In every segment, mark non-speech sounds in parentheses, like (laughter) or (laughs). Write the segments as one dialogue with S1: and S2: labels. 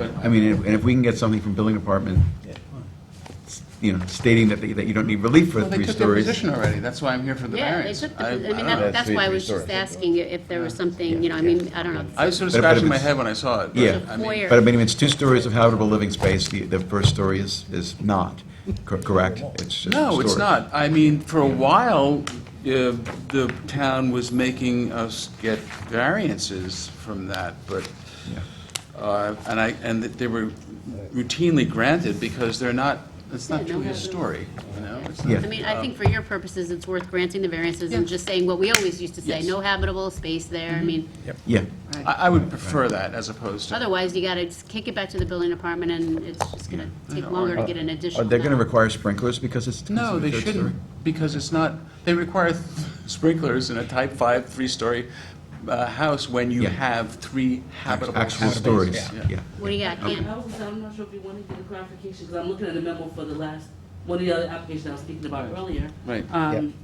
S1: I mean, and if- and if we can get something from building department, s- you know, stating that, they- that you don't need relief for
S2: Well, they
S1: three
S2: took their
S1: stories.
S2: position already, that's why I'm here for the
S3: Yeah, they
S2: variance.
S3: took the,
S2: I-
S3: I mean,
S2: don't
S3: that-
S2: know.
S3: that's why I was just asking you if there was something, you know, I mean, I don't know.
S2: I was sort of
S1: But- but if
S2: scratching my
S1: it's-
S2: head when I saw it. but,
S1: Yeah.
S2: I mean,
S3: Foyer.
S1: But I mean, if it's two stories of habitable living space, the, the first story is, is not, cor- correct? It's just a
S2: No, it's
S1: story.
S2: not. I mean, for a while, uh, the town was making us get variances from that, but,
S1: Yeah.
S2: uh, and I, and they were routinely granted because they're not, it's not
S3: Yeah, no
S2: truly a
S3: hazard.
S2: story, you know? It's
S1: Yeah.
S2: not-
S3: I mean, I think for your purposes, it's worth granting the variances and
S2: Yeah. Mm-hmm.
S3: just saying what we always used to say,
S2: Yes.
S3: no habitable space there, I mean,
S1: Yeah,
S2: I, I would prefer that as opposed to.
S3: otherwise you gotta just kick it back to the building department and it's just gonna
S2: I
S3: take
S2: know.
S3: longer to get an
S1: are
S3: additional.
S1: they gonna
S3: map.
S1: require sprinklers because it's?
S2: No,
S1: considered
S2: they
S1: third
S2: shouldn't,
S1: story?
S2: because it's not, they require th- sprinklers in a type five, three-story uh, house when you
S1: Yeah.
S2: have three habitable.
S1: Actual
S2: spaces.
S1: stories, yeah.
S3: What do you got,
S4: I
S3: Ken?
S4: was, I'm not sure if you want to get a clarification, because I'm looking at a memo for the last, one of the other applications I was speaking about earlier.
S2: Right.
S4: Um,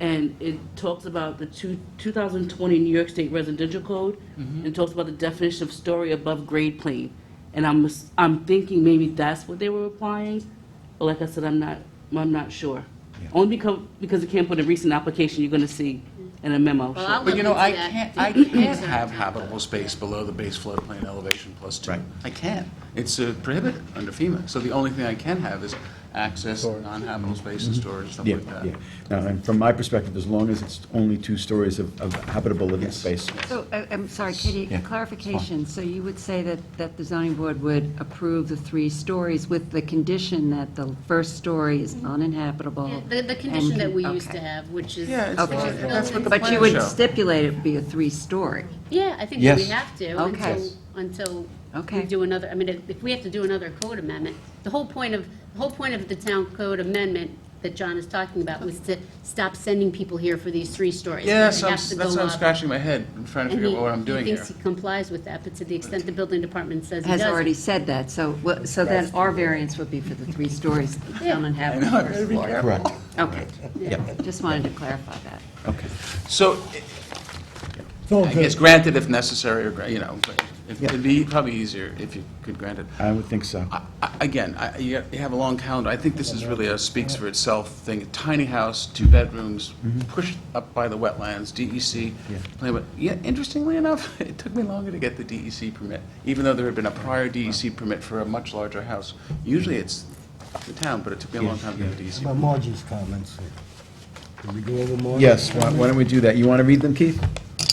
S4: and it talks about the two, 2020 New York State Residential Code,
S2: Mm-hmm.
S4: and talks about the definition of story above grade plane. And I'm, ass- I'm thinking maybe that's what they were applying, but like I said, I'm not, I'm not sure. Only because, because it can't put a recent application you're gonna see in a memo.
S3: Well,
S4: sure.
S3: I'll
S2: But you know,
S3: Look
S2: I
S3: into that.
S2: can't,
S3: (clears throat)
S2: I can't have habitable space below the base floodplain elevation plus two.
S1: Right.
S2: I can't. It's uh, prohibited under FEMA. So the only thing I can have is access, non-habitable space and storage, stuff
S1: Mm-hmm. Yeah,
S2: like that.
S1: yeah. Now, and from my perspective, as long as it's only two stories of, of habitable living space,
S5: So, I- I'm sorry, Katie,
S1: Yeah.
S5: clarification, so you would say that, that the zoning board would approve the three stories with the condition that the first story is uninhabitable?
S3: Mm-hmm. The, the condition
S5: and-
S3: that we used to
S5: okay.
S3: have, which is.
S2: Yeah, it's
S5: Okay.
S2: what- that's what the
S5: But
S2: plan
S5: you would
S2: show.
S5: stipulate it would be a three-story?
S3: Yeah, I think that we
S1: Yes.
S3: have to
S5: Okay.
S3: until, until we
S5: Okay.
S3: do another, I mean, if- if we have to do another code amendment, the whole point of, the whole point of the town code amendment that John is talking about was to stop sending people here for these three stories.
S2: Yes,
S3: They
S2: I'm-
S3: have to
S2: that's
S3: go
S2: why I'm
S3: up.
S2: scratching my head, and trying to
S3: And
S2: figure
S3: he,
S2: out what I'm
S3: he
S2: doing here.
S3: thinks he complies with that, but to the extent the building department says he
S5: Has
S3: doesn't.
S5: already said that, so, well, so then our variance would be for the three stories
S3: (laughs) Yeah.
S5: uninhabitable
S2: I know, I better
S5: first
S2: be
S5: floor.
S1: correct,
S5: Okay,
S1: yeah,
S5: just wanted to clarify that.
S1: okay.
S2: So, I guess granted if necessary, or, gra- you know, but if-
S1: Yeah.
S2: it'd be probably easier if you could grant it.
S1: I would think so.
S2: I- I- Again, I- you have- you have a long calendar, I think this is really a speaks for itself thing, tiny house, two bedrooms, pushed up by the wetlands, E DEC.
S1: Mm-hmm. Yeah.
S2: plan, but- Yeah, interestingly enough, (laughs) it took me longer to get the DEC permit, even though there had been a prior DEC permit for a much larger house. Usually it's the town, but it took me a long time to get the E DEC.
S6: About Margie's comments. Can we go over Margie's?
S1: Yes, why why don't we do that? You want to read them, Keith?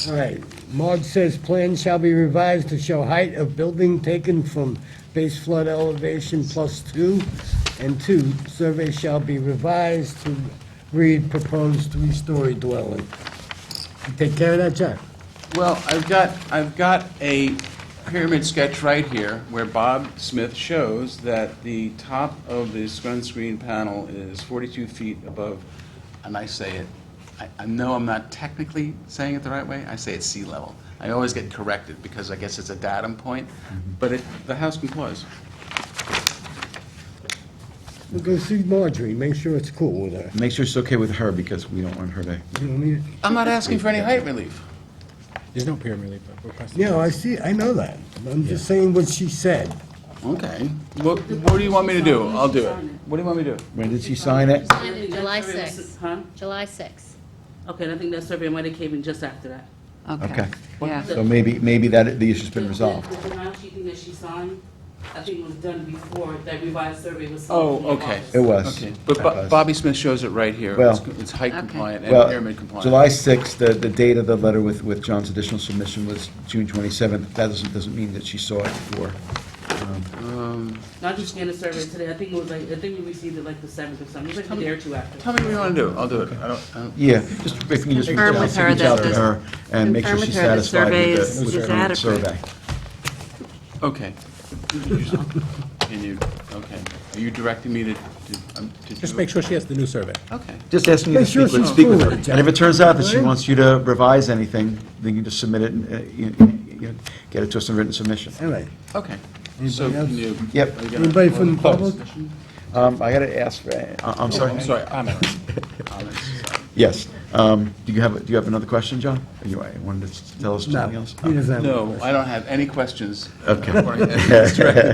S6: All right. Marge says, "Plan shall be revised to show height of building taken from base flood elevation plus two, and two, survey shall be revised to read proposed three-story dwelling." You Take care of that, Jack.
S2: Well, I've got, I've got a pyramid sketch right here where Bob Smith shows that the top of the sunscreen panel is 42 feet above, and I say it, I- I know I'm not technically saying it the right way, I say it's sea level. I always get corrected because I guess it's a datum point, but it, the house complies.
S6: We'll go see Marjorie, make sure it's cool with her.
S1: Make sure it's okay with her, because we don't want her to,
S6: You know what I mean?
S2: I'm not asking for any height relief.
S7: There's no peer relief request.
S6: Yeah, I see, I know that. I'm just saying what she said.
S2: Okay. What, what do you want me to do? I'll do it. What do you want me to do?
S1: when did she sign it?
S3: Signed it July sixth,
S4: Huh?
S3: July sixth.
S4: Okay, and I think that survey might have came in just after that.
S1: Okay.
S5: Okay, yeah.
S1: So maybe, maybe that, the issue's been resolved.
S4: The denial sheet thing that she signed, I think was done before that revised survey was.
S2: Oh,
S4: submitted in
S2: okay.
S4: August.
S1: It was.
S2: Okay, but Bo-
S1: It was.
S2: Bobby Smith shows it right here.
S1: Well-
S2: It's- It's height
S5: Okay.
S2: compliant and
S1: Well,
S2: pyramid compliant.
S1: July 6th, the, the date of the letter with, with John's additional submission was June 27th. That doesn't, doesn't mean that she saw it before.
S4: Not just in the survey today, I think it was like, I think we received it like the seventh or something, it was like a day or two
S2: Tell me
S4: after.
S2: what you want to do, I'll do it. I don't, I don't,
S1: Yeah, just, if you just reach
S5: Confirm
S1: out,
S5: with her
S1: reach out
S5: that
S1: to
S5: the-
S1: her and make sure
S5: confirm with
S1: she's
S5: her the
S1: satisfied
S5: survey
S1: with
S5: is-
S1: the- with
S5: is
S1: the
S5: adequate.
S1: survey.
S2: okay. Can you, okay, are you directing me to, to- um, to do?
S7: Just make
S2: it?
S7: sure she has the new survey.
S2: Okay,
S1: Just asking you to
S6: Make sure
S1: speak with,
S6: she's
S1: speak with her.
S6: cool with it,
S1: And if it turns out that she wants you to revise anything, then you just submit it and, uh, you- you, you know, get it to us in written submission.
S6: All right.
S2: okay. So
S6: Anybody else?
S2: can you?
S1: Yep.
S2: are you gonna-
S6: Anybody from the
S1: Close.
S6: public?
S1: Um, I gotta ask, for- I- I'm sorry.
S2: Oh, I'm sorry.
S7: Comments.
S2: Comments, sorry.
S1: Yes. Um, Do you have, do you have another question, John? You uh, wanted to tell us something
S6: No,
S1: else?
S6: he doesn't have a
S2: No,
S6: question.
S2: I don't have any questions.
S1: Okay.
S2: It's directed